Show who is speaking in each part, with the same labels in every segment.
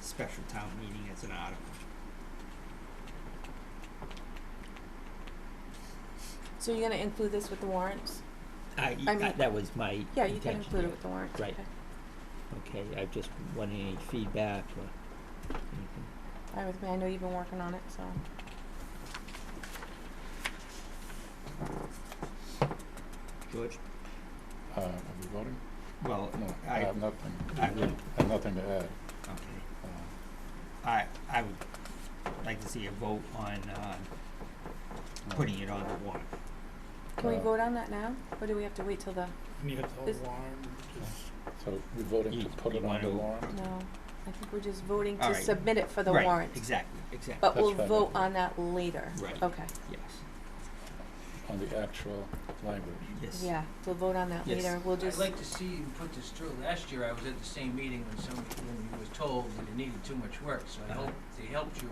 Speaker 1: special town meeting as an article.
Speaker 2: So you're gonna include this with the warrants?
Speaker 1: I,
Speaker 2: I mean-
Speaker 1: that was my
Speaker 2: Yeah, you can
Speaker 1: intention,
Speaker 2: include it with the warrants,
Speaker 1: Right.
Speaker 2: okay.
Speaker 1: Okay, I just wanted any feedback or anything.
Speaker 2: Fine with me, I know you've been working on it, so.
Speaker 1: George?
Speaker 3: Uh, are we voting?
Speaker 1: Well,
Speaker 3: No, I
Speaker 1: I-
Speaker 3: have nothing,
Speaker 1: I-
Speaker 3: I have nothing to add.
Speaker 1: okay,
Speaker 3: Uh,
Speaker 1: I, I would like to see a vote on, uh,
Speaker 3: no.
Speaker 1: putting it on the warrant.
Speaker 2: Can we
Speaker 3: Uh,
Speaker 2: vote on that now, or do we have to wait till the,
Speaker 4: And you have to
Speaker 2: Is-
Speaker 4: hold warrant, just,
Speaker 3: So we're voting
Speaker 1: You-
Speaker 3: to put
Speaker 1: you
Speaker 3: it on the
Speaker 1: wanna-
Speaker 3: warrant?
Speaker 2: no, I think we're just voting to
Speaker 1: Alright.
Speaker 2: submit it for the warrant.
Speaker 1: Right, exactly, exactly,
Speaker 2: But we'll
Speaker 3: That's fine.
Speaker 2: vote on that later.
Speaker 1: Right.
Speaker 2: Okay,
Speaker 1: yes,
Speaker 3: On the actual language?
Speaker 1: yes.
Speaker 2: yeah, we'll vote on that
Speaker 1: Yes.
Speaker 2: later, we'll
Speaker 5: I'd
Speaker 2: just,
Speaker 5: like to see you put this through. Last year, I was at the same meeting when somebody, when you was told that it needed too much work, so I
Speaker 1: Uh-huh.
Speaker 5: hope they helped you,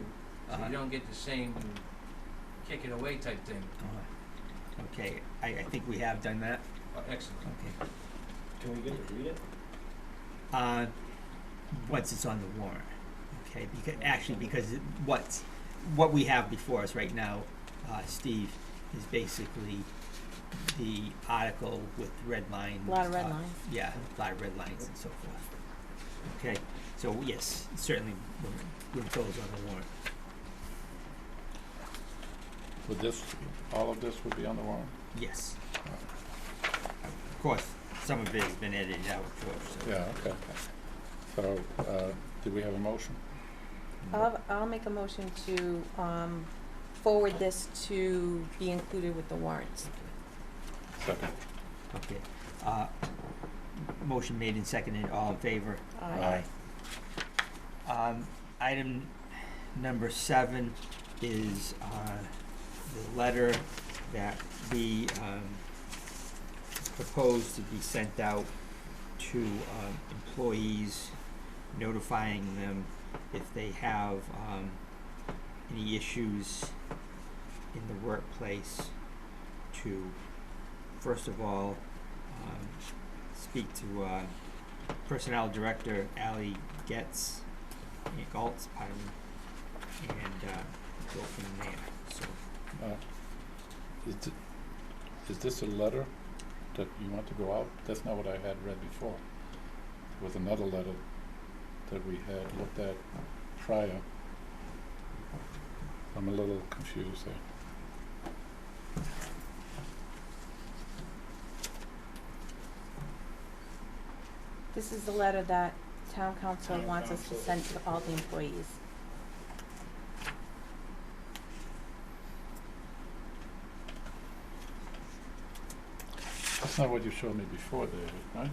Speaker 5: so
Speaker 1: Uh-huh.
Speaker 5: you don't get the same kick it away type thing.
Speaker 1: Uh, Okay, I, I think we have done that,
Speaker 5: Oh, Excellent.
Speaker 1: okay.
Speaker 6: Can we get to read it?
Speaker 1: Uh, once it's on the warrant, okay, because, actually, because it- what's, what we have before us right now, uh, Steve, is basically the article with red line.
Speaker 2: a lot of
Speaker 1: uh,
Speaker 2: red lines.
Speaker 1: Yeah, a lot of red lines and so forth. Okay, so yes, certainly we'll, we'll those on the warrant.
Speaker 3: Would this, all of this would be on the warrant?
Speaker 1: Yes. Of course, some of it has been edited out, George, so.
Speaker 3: Yeah, okay. So, uh, do we have a motion?
Speaker 2: I'll, I'll make a motion to, um, forward this to be included with the warrants.
Speaker 3: Second.
Speaker 1: Okay. Uh, motion made and seconded, all in favor?
Speaker 2: Aye.
Speaker 1: Um, item number seven is, uh, the letter that we, um, propose to be sent out to, um, employees, notifying them if they have, um, any issues in the workplace to, first of all, um, speak to, uh, Personnel Director Ally Getz, eh, Galtz, pardon, me, and uh, go from there. So,
Speaker 3: Uh, Is th- is this a letter that you want to go out? That's not what I had read before. There was another letter that we had looked at prior. I'm a little confused there.
Speaker 2: This is the letter that town council
Speaker 4: Town
Speaker 2: wants us to
Speaker 4: council.
Speaker 2: send to all the employees.
Speaker 3: That's not what you showed me before, David, right?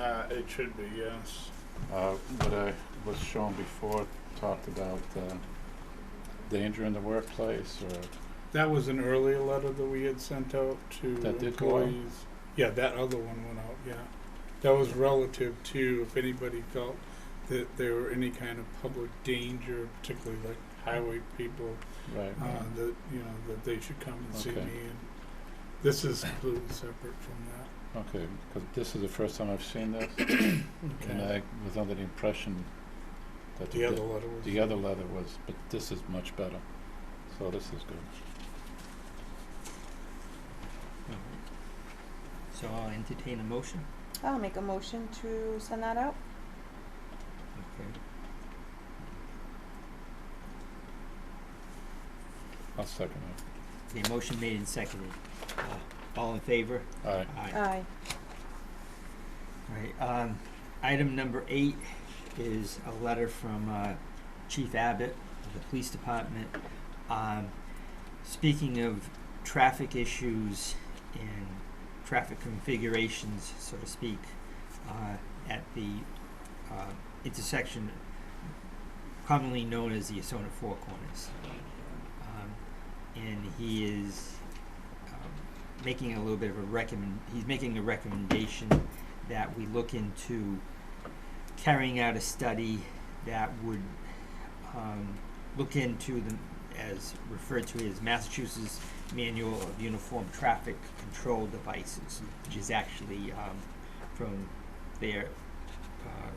Speaker 4: uh, it should be, yes.
Speaker 3: Uh, what I was shown before talked about, uh, danger in the workplace or,
Speaker 4: That was an earlier letter that we had sent out to
Speaker 3: That did go out?
Speaker 4: employees. Yeah, that other one went out, yeah. That was relative to if anybody felt that there were any kind of public danger, particularly like highway people,
Speaker 3: right,
Speaker 4: uh, that, you know, that they should come and see me.
Speaker 3: Okay.
Speaker 4: And This is completely separate from that.
Speaker 3: okay, because this is the first time I've seen this. And I was under the impression that
Speaker 4: The other letter was.
Speaker 3: the other leather was, but this is much better. So this is good.
Speaker 1: all right. so I'll entertain a motion.
Speaker 2: I'll make a motion to send that out.
Speaker 1: Okay.
Speaker 3: I'll second
Speaker 1: The motion made and seconded. Uh, all in favor?
Speaker 3: it. Aye.
Speaker 1: Aye.
Speaker 2: Aye.
Speaker 1: All right. Um, item number eight is a letter from uh, Chief Abbott of the Police Department. Um, speaking of traffic issues and traffic configurations, so to speak, uh, at the uh, intersection commonly known as the Asona Four Corners. Um, and he is um, making a little bit of a recommend. He's making a recommendation that we look into carrying out a study that would um, look into the, as referred to as Massachusetts Manual of Uniform Traffic Control Devices, which is actually um, from their uh,